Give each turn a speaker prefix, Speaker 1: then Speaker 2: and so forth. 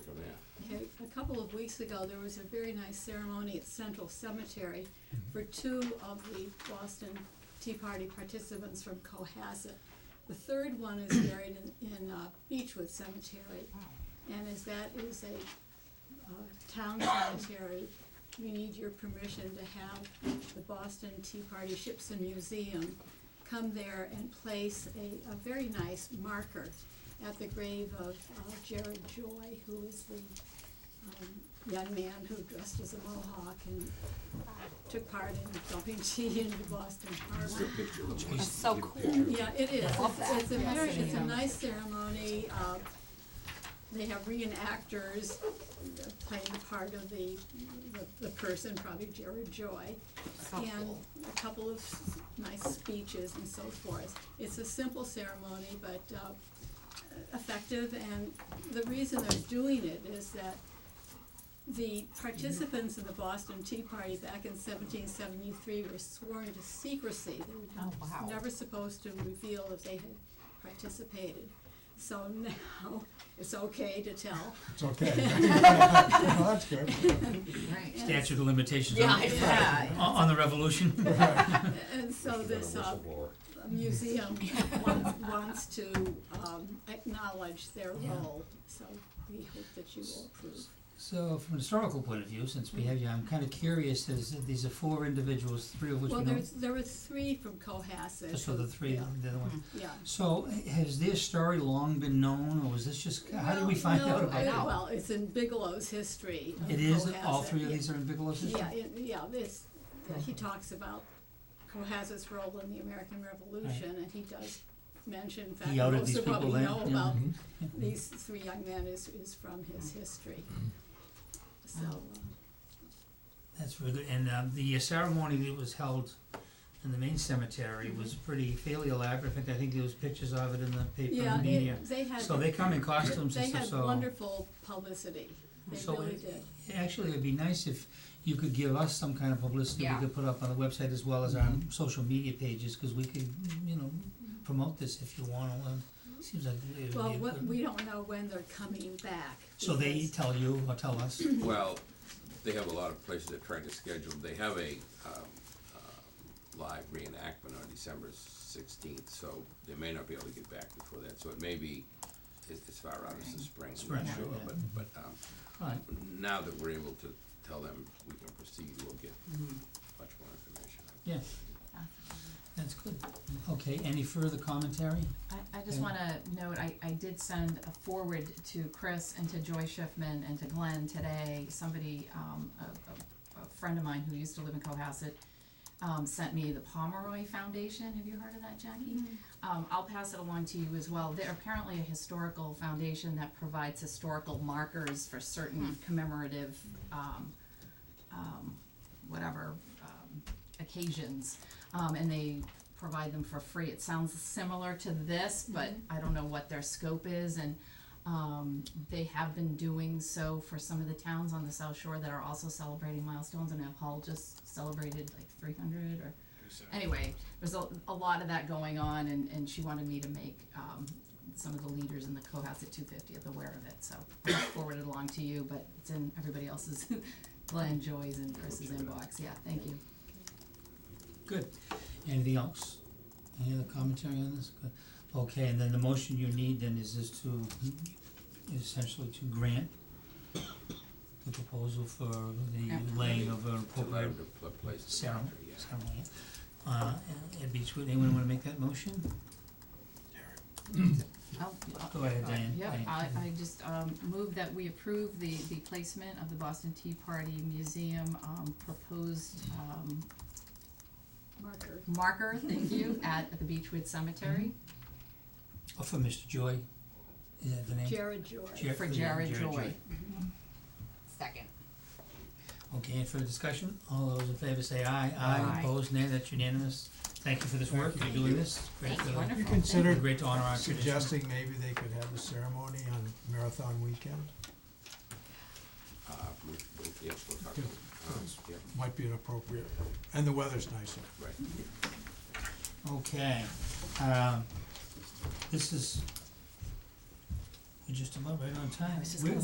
Speaker 1: couple of weeks ago, there was a very nice ceremony at Central Cemetery for two of the Boston Tea Party participants from Cohasset. The third one is buried in, in uh, Beechwood Cemetery. And as that is a uh, town cemetery, we need your permission to have the Boston Tea Party Ships and Museum come there and place a, a very nice marker at the grave of uh, Jared Joy, who is the um, young man who dressed as a mohawk and took part in dumping tea into Boston Harbor.
Speaker 2: That's so cool.
Speaker 1: Yeah, it is.
Speaker 2: love
Speaker 1: It's-
Speaker 2: that.
Speaker 1: It's a
Speaker 2: Yes,
Speaker 1: very,
Speaker 2: it
Speaker 1: it's a
Speaker 2: is.
Speaker 1: nice ceremony. Uh, They have reenactors playing the part of the, the- the person, probably Jared Joy.
Speaker 2: So
Speaker 1: And
Speaker 2: cool.
Speaker 1: a couple of s- nice speeches and so forth. It's a simple ceremony, but uh, effective. And the reason they're doing it is that the participants in the Boston Tea Party back in seventeen seventy-three were sworn to secrecy. They were
Speaker 2: Oh, wow.
Speaker 1: never supposed to reveal if they had participated. So now, it's okay to tell.
Speaker 3: It's okay. Well, That's good.
Speaker 2: Right.
Speaker 4: Statute of limitations on,
Speaker 2: Yeah, yeah.
Speaker 4: on- on the revolution.
Speaker 1: And so this uh, museum wants, wants to um, acknowledge their role, so we hope that you will approve.
Speaker 4: So, from a historical point of view, since we have you, I'm kind of curious, is, these are four individuals, three of which
Speaker 1: Well,
Speaker 4: we know.
Speaker 1: there's, there were three from Cohasset.
Speaker 4: So the
Speaker 1: who-
Speaker 4: three,
Speaker 1: yeah, Mm-hmm.
Speaker 4: the other one.
Speaker 1: Yeah.
Speaker 4: So, h- has their story long been known, or was this just, how did we
Speaker 1: Well,
Speaker 4: find
Speaker 1: no,
Speaker 4: out
Speaker 1: I-
Speaker 4: about that?
Speaker 1: Well, it's in Bigelow's history. of
Speaker 4: It is, all
Speaker 1: Cohasset,
Speaker 4: three of
Speaker 1: yeah.
Speaker 4: these are in Bigelow's history?
Speaker 1: Yeah, it- yeah, this, he talks about Cohasset's role in the American Revolution, and he does mention, in fact,
Speaker 4: He outed
Speaker 1: most
Speaker 4: these
Speaker 1: of
Speaker 4: people
Speaker 1: what we
Speaker 4: then,
Speaker 1: know
Speaker 4: yeah. Mm-hmm.
Speaker 1: about these three young men is, is from his history.
Speaker 4: Mm-hmm.
Speaker 1: So, uh,
Speaker 4: That's really good, and, um, the ceremony that was held in the main
Speaker 1: Mm-hmm.
Speaker 4: cemetery was pretty fairly elaborate, in fact, I think there was pictures of it in the paper
Speaker 1: yeah,
Speaker 4: and media.
Speaker 1: it- they had,
Speaker 4: So they come in costumes
Speaker 1: they
Speaker 4: and stuff,
Speaker 1: had
Speaker 4: so. Oh,
Speaker 1: wonderful publicity, they
Speaker 4: So
Speaker 1: really
Speaker 4: it-
Speaker 1: did.
Speaker 4: Actually, it'd be nice if you could give us some kind of publicity we
Speaker 2: Yeah.
Speaker 4: could put up on the website as well as our
Speaker 1: Mm-hmm.
Speaker 4: social media pages, cause we could, you know, promote this if you wanna, um, seems like it would be a good.
Speaker 1: Well, what, we don't know when they're coming back.
Speaker 4: So they
Speaker 1: because-
Speaker 4: tell you or tell us,
Speaker 5: Well, they have a lot of places they're trying to schedule, they have a, um, um, live reenactment on December sixteenth, so they may not be able to get back before that, so it may be as, as far out as the spring, I'm
Speaker 4: Spring,
Speaker 5: not sure,
Speaker 4: yeah.
Speaker 5: but, but, um,
Speaker 4: alright,
Speaker 5: now that we're able to tell them we can proceed, we'll get
Speaker 1: Mm-hmm.
Speaker 5: much more information.
Speaker 4: yeah. That's good, okay, any further commentary?
Speaker 6: I, I just
Speaker 4: Yeah.
Speaker 6: wanna note, I, I did send a forward to Chris and to Joy Schiffman and to Glenn today. Somebody, um, a, a, a friend of mine who used to live in Cohasset, um, sent me the Pomeroy Foundation. Have you heard of that, Jackie?
Speaker 2: Mm-hmm.
Speaker 6: Um, I'll pass it along to you as well. They're apparently a historical foundation that provides historical markers for
Speaker 2: Hmm.
Speaker 6: certain commemorative, um, um, whatever, um, occasions. Um, and they provide them for free. It sounds similar to this, but I don't know what their scope is and um, they have been doing so for some of the towns on the South Shore that are also celebrating milestones and have Hull just celebrated like three hundred or anyway, there's a, a lot of that going on and, and she wanted me to make um, some of the leaders in the Cohasset two fiftieth aware of it, so I forwarded along to you, but it's in everybody else's Glenn, Joy's and Chris's inbox, yeah, thank you.
Speaker 4: Good, anything else? Any other commentary on this? Good. Okay, and then the motion you need then is this to, is essentially to grant the proposal for the laying of
Speaker 5: To
Speaker 4: an
Speaker 5: let
Speaker 4: appropriate
Speaker 5: them pl- place the
Speaker 4: ceremony,
Speaker 5: marker, yeah.
Speaker 4: ceremony. Uh, at Beechwood, anyone wanna make that motion?
Speaker 6: I'll- I'll-
Speaker 4: Go ahead, Diane.
Speaker 6: Oh, Uh, Yeah,
Speaker 4: Diane.
Speaker 6: I, I just, um, move that we approve the, the placement of the Boston Tea Party Museum, um, proposed, um,
Speaker 1: Marker.
Speaker 6: marker, thank you, at the Beechwood Cemetery
Speaker 4: Oh, for Mr. Joy, is that the name?
Speaker 1: Jared Joy.
Speaker 4: Jer-
Speaker 6: for
Speaker 4: yeah,
Speaker 6: Jared Joy. Mm-hmm.
Speaker 2: Second.
Speaker 4: Okay, and for discussion, all those in favor say aye, aye,
Speaker 2: Aye.
Speaker 4: opposed, nay, that's unanimous. Thank you for this work, you're doing this, great,
Speaker 6: Thank you,
Speaker 4: uh,
Speaker 3: You
Speaker 6: wonderful.
Speaker 3: considered
Speaker 4: great to honor our tradition.
Speaker 3: suggesting maybe they could have a ceremony on Marathon Weekend?
Speaker 5: Uh, we, we, yes, we'll talk, to them. um, yeah,
Speaker 3: Might be an appropriate, and the weather's nicer.
Speaker 5: right.
Speaker 4: Okay, um, this is, we're just about right on time.
Speaker 6: was just
Speaker 4: We're-
Speaker 6: gonna